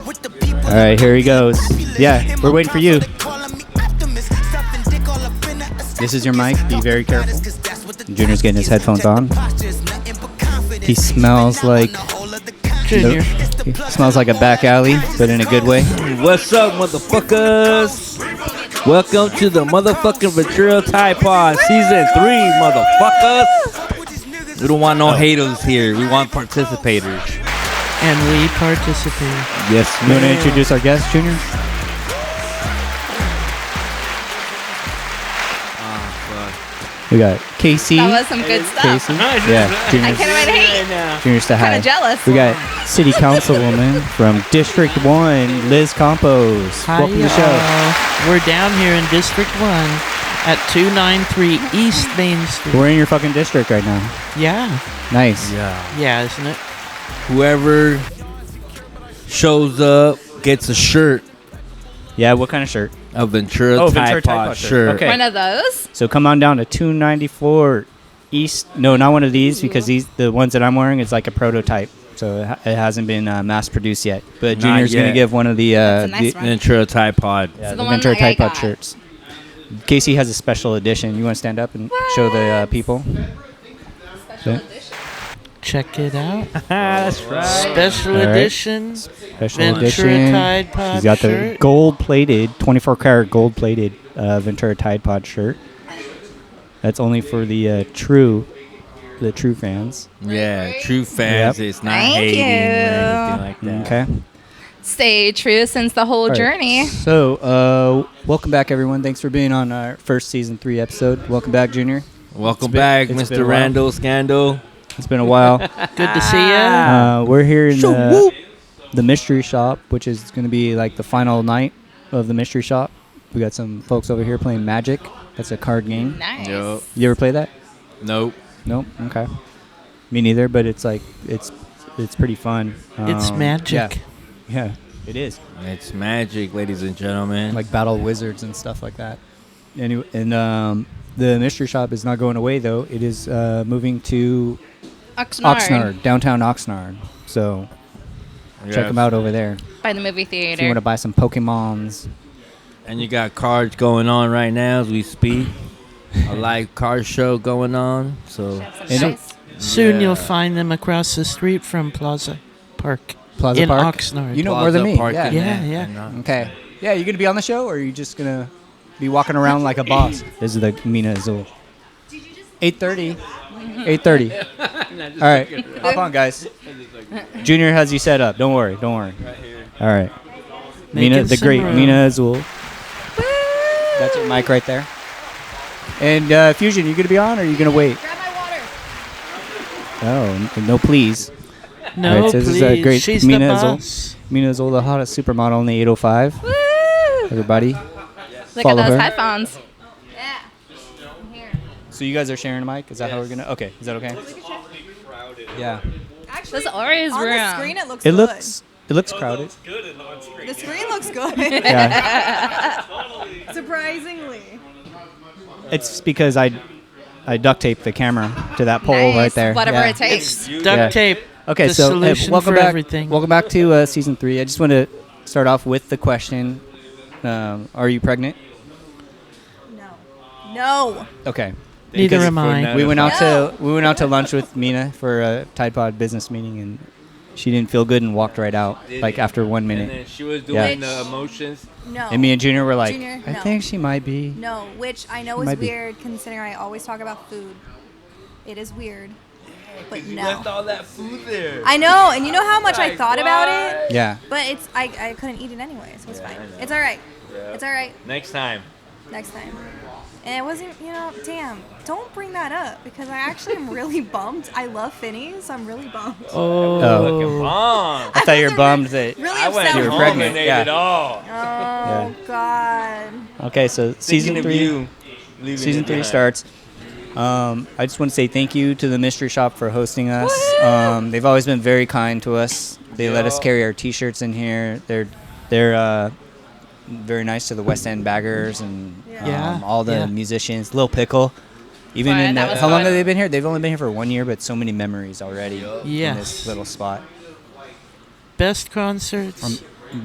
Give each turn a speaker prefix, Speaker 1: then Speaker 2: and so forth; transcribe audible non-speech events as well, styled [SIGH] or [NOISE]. Speaker 1: All right, here he goes. Yeah, we're waiting for you.
Speaker 2: This is your mic. Be very careful.
Speaker 1: Junior's getting his headphones on.
Speaker 2: He smells like.
Speaker 3: Junior.
Speaker 1: He smells like a back alley, but in a good way.
Speaker 3: What's up, motherfuckers? Welcome to the motherfucking Ventura Tide Pod Season 3, motherfuckers. Oh. We don't want no haters here. We want participators.
Speaker 4: And we participate.
Speaker 1: Yes, you want to introduce our guest, Junior? We got Ah, Casey.
Speaker 5: That was some good stuff.
Speaker 1: Casey. Yeah,
Speaker 5: I
Speaker 1: Junior's,
Speaker 5: can't wait to hate.
Speaker 1: Junior's to
Speaker 5: Kind
Speaker 1: high.
Speaker 5: of jealous.
Speaker 1: We got City Councilwoman from District 1, Liz Campos. Welcome to the show.
Speaker 4: Hi-yo. We're down here in District 1 at 293 East Main Street.
Speaker 1: We're in your fucking district right now.
Speaker 4: Yeah.
Speaker 1: Nice.
Speaker 3: Yeah.
Speaker 4: Yeah, isn't it?
Speaker 3: Whoever shows up gets a shirt,
Speaker 1: Yeah, what kind of shirt?
Speaker 3: a Ventura
Speaker 1: Oh,
Speaker 3: Tide
Speaker 1: Ventura Tide
Speaker 3: Pod
Speaker 1: Pod shirt.
Speaker 3: shirt.
Speaker 1: Okay.
Speaker 5: One of those.
Speaker 1: So come on down to 294 East. No, not one of these because these the ones that I'm wearing is like a prototype. So it, ha- it hasn't been uh, mass produced yet. But
Speaker 3: Not
Speaker 1: Junior's going
Speaker 3: yet.
Speaker 1: to give one of the, uh,
Speaker 5: a nice
Speaker 1: the,
Speaker 5: one.
Speaker 3: Ventura Tide Pod.
Speaker 1: yeah,
Speaker 5: So the
Speaker 1: the
Speaker 5: one
Speaker 1: Ventura
Speaker 5: like I
Speaker 1: Tide Pod
Speaker 5: got.
Speaker 1: shirts. Casey has a special edition. You want to stand up and show the uh, people?
Speaker 5: Special
Speaker 1: Okay.
Speaker 5: edition.
Speaker 4: Check it out.
Speaker 3: [LAUGHS] That's right.
Speaker 4: Special
Speaker 1: All right.
Speaker 4: edition.
Speaker 1: Special
Speaker 4: Ventura
Speaker 1: edition.
Speaker 4: Tide Pod
Speaker 1: She's got the
Speaker 4: shirt.
Speaker 1: gold plated, 24 karat gold plated uh, Ventura Tide Pod shirt. That's only for the uh, true, the true fans.
Speaker 3: Yeah, true fans.
Speaker 1: Yep.
Speaker 3: It's not
Speaker 5: Thank
Speaker 3: hating
Speaker 5: you.
Speaker 3: or anything like that.
Speaker 1: Okay.
Speaker 5: Stay true since the whole
Speaker 1: All right.
Speaker 5: journey.
Speaker 1: So, uh, welcome back, everyone. Thanks for being on our first season three episode. Welcome back, Junior.
Speaker 3: Welcome
Speaker 1: It's been-
Speaker 3: back,
Speaker 1: it's been a
Speaker 3: Mr.
Speaker 1: while.
Speaker 3: Randall Scandal.
Speaker 1: It's been a while.
Speaker 4: Good to see you.
Speaker 1: uh, we're here in the, the mystery shop, which is going to be like the final night of the mystery shop. We got some folks over here playing Magic. That's a card game.
Speaker 5: Nice.
Speaker 3: Yup.
Speaker 1: You ever play that?
Speaker 3: Nope.
Speaker 1: Nope. Okay. Me neither. But it's like it's it's pretty fun.
Speaker 4: It's
Speaker 1: Um,
Speaker 4: magic.
Speaker 1: Yeah. yeah. It is.
Speaker 3: It's magic, ladies and gentlemen.
Speaker 1: like battle wizards and stuff like that. Anyway, and um, the mystery shop is not going away though. It is uh, moving to
Speaker 5: Oxnard.
Speaker 1: Oxnard, downtown Oxnard. So check 'em check
Speaker 3: Yes.
Speaker 1: them out over there
Speaker 5: By the movie
Speaker 1: if you want
Speaker 5: theater.
Speaker 1: to buy some Pokemons.
Speaker 3: And you got cards going on right now as we speak. A live card show going on. So
Speaker 5: Have some
Speaker 1: And-
Speaker 5: nice-
Speaker 4: Soon
Speaker 3: Yeah.
Speaker 4: you'll find them across the street from Plaza Park.
Speaker 1: Plaza
Speaker 4: in
Speaker 1: Park?
Speaker 4: Oxnard.
Speaker 1: You know more than
Speaker 3: Plaza
Speaker 1: me.
Speaker 3: Park
Speaker 1: Yeah.
Speaker 3: and
Speaker 4: Yeah,
Speaker 3: that,
Speaker 4: yeah.
Speaker 3: and, uh,
Speaker 1: Okay. Yeah, you gonna be on the show, or are you just gonna be walking around like a boss? [LAUGHS] This is the Mina Azul. Eight thirty. Eight thirty. All right, hop on, guys. Junior has you set up. Don't worry. Don't worry. All right. Mina,
Speaker 4: Making
Speaker 1: the
Speaker 4: some
Speaker 1: great
Speaker 4: room.
Speaker 1: Mina Azul. That's your mic right there. And uh, Fusion, you gonna be on, or are you gonna wait?
Speaker 5: Grab my water.
Speaker 1: Oh, n- no, please.
Speaker 4: No,
Speaker 1: Alright, so
Speaker 4: please.
Speaker 1: this is a great
Speaker 4: She's
Speaker 1: Mina
Speaker 4: the
Speaker 1: is all-
Speaker 4: boss.
Speaker 1: Mina Azul, the hottest supermodel in the 805.
Speaker 5: Woo!
Speaker 1: Everybody.
Speaker 5: Look
Speaker 1: Follow
Speaker 5: at those
Speaker 1: her.
Speaker 5: headphones. Yeah. I'm here.
Speaker 1: So you guys are sharing a mic? Is that how we're gonna? Okay, is that okay? Yeah.
Speaker 5: There's always
Speaker 6: On
Speaker 5: room.
Speaker 6: the screen, it looks.
Speaker 1: It
Speaker 6: good.
Speaker 1: looks it looks crowded.
Speaker 6: The screen looks good.
Speaker 1: Yeah.
Speaker 6: [LAUGHS] Surprisingly.
Speaker 1: it's because I I duct taped the camera to that pole
Speaker 5: nice.
Speaker 1: right there.
Speaker 5: Whatever
Speaker 1: Yeah.
Speaker 5: it takes.
Speaker 4: Duct
Speaker 1: Yeah.
Speaker 4: tape.
Speaker 1: Okay,
Speaker 4: the
Speaker 1: so hey,
Speaker 4: solution
Speaker 1: welcome
Speaker 4: for
Speaker 1: back.
Speaker 4: everything.
Speaker 1: Welcome back to uh, season three. I just want to start off with the question: um, Are you pregnant?
Speaker 6: No. No.
Speaker 1: Okay.
Speaker 4: Neither
Speaker 1: Because
Speaker 4: am I.
Speaker 1: We went out
Speaker 6: No.
Speaker 1: to we went out to lunch with Mina for a Tide Pod business meeting, and she didn't feel good and walked right out like after one
Speaker 3: And
Speaker 1: minute.
Speaker 3: then she was
Speaker 1: Yeah.
Speaker 3: doing the emotions.
Speaker 6: No.
Speaker 1: And me and Junior were like,
Speaker 6: Junior,
Speaker 1: I
Speaker 6: no.
Speaker 1: think she might be.
Speaker 6: no, which I know is
Speaker 1: Might be.
Speaker 6: weird considering I always talk about food. It is weird. But
Speaker 3: You
Speaker 6: no.
Speaker 3: left all that food there.
Speaker 6: I know, and you know how much I thought about it,
Speaker 1: Yeah.
Speaker 6: but it's I, I couldn't eat it anyway, so it's
Speaker 3: Yeah, I
Speaker 6: fine.
Speaker 3: know.
Speaker 6: It's all right.
Speaker 3: Yeah.
Speaker 6: It's all right.
Speaker 3: Next time.
Speaker 6: Next time. And it wasn't, you know, damn. Don't bring that up because I actually am really [LAUGHS] bummed. I love Phineas. I'm really bummed.
Speaker 1: Oh.
Speaker 3: Fucking bomb.
Speaker 1: I thought you were bummed that.
Speaker 6: Really
Speaker 3: I went
Speaker 6: upset.
Speaker 1: You were
Speaker 3: home
Speaker 1: pregnant,
Speaker 3: and ate
Speaker 1: yeah.
Speaker 3: it all.
Speaker 6: Oh God.
Speaker 1: Okay, so
Speaker 3: Thinking
Speaker 1: season
Speaker 3: of
Speaker 1: three.
Speaker 3: you, leaving
Speaker 1: season
Speaker 3: it
Speaker 1: three
Speaker 3: behind.
Speaker 1: starts. Um, I just want to say thank you to the Mystery Shop for hosting us. Um, they've always been very kind to us. They let us
Speaker 3: Yeah.
Speaker 1: carry our T-shirts in here. They're they're uh, very nice to the West End baggers and
Speaker 6: Yeah.
Speaker 1: um,
Speaker 4: Yeah,
Speaker 1: all the
Speaker 4: yeah.
Speaker 1: musicians. Lil Pickle, even
Speaker 5: Fun,
Speaker 1: in
Speaker 5: that
Speaker 1: the,
Speaker 5: was
Speaker 1: how long
Speaker 5: fun.
Speaker 1: have they been here? They've only been here for one year, but so many memories already in this
Speaker 4: Yes.
Speaker 1: little spot. Um,
Speaker 4: Best concerts.